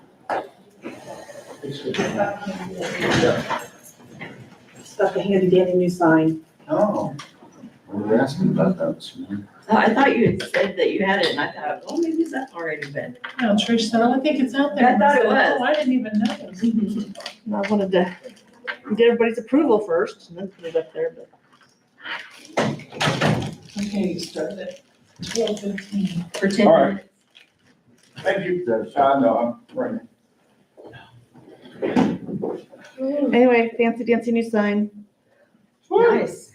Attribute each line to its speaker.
Speaker 1: Stuck a handy dandy new sign.
Speaker 2: Oh. We were asking about that this morning.
Speaker 3: Oh, I thought you had said that you had it, and I thought, well, maybe that's already been.
Speaker 4: No, Trish said, "Oh, I think it's out there.
Speaker 3: I thought it
Speaker 4: said,
Speaker 3: was.
Speaker 4: Oh, I didn't even notice.
Speaker 1: And I wanted to get everybody's approval first and then put it up there, but.
Speaker 4: Okay, you started at twelve fifteen.
Speaker 3: For ten
Speaker 2: All right.
Speaker 3: minutes.
Speaker 2: Thank you. That's, I know, I'm right.
Speaker 1: Anyway, fancy dancy new sign.
Speaker 3: Nice.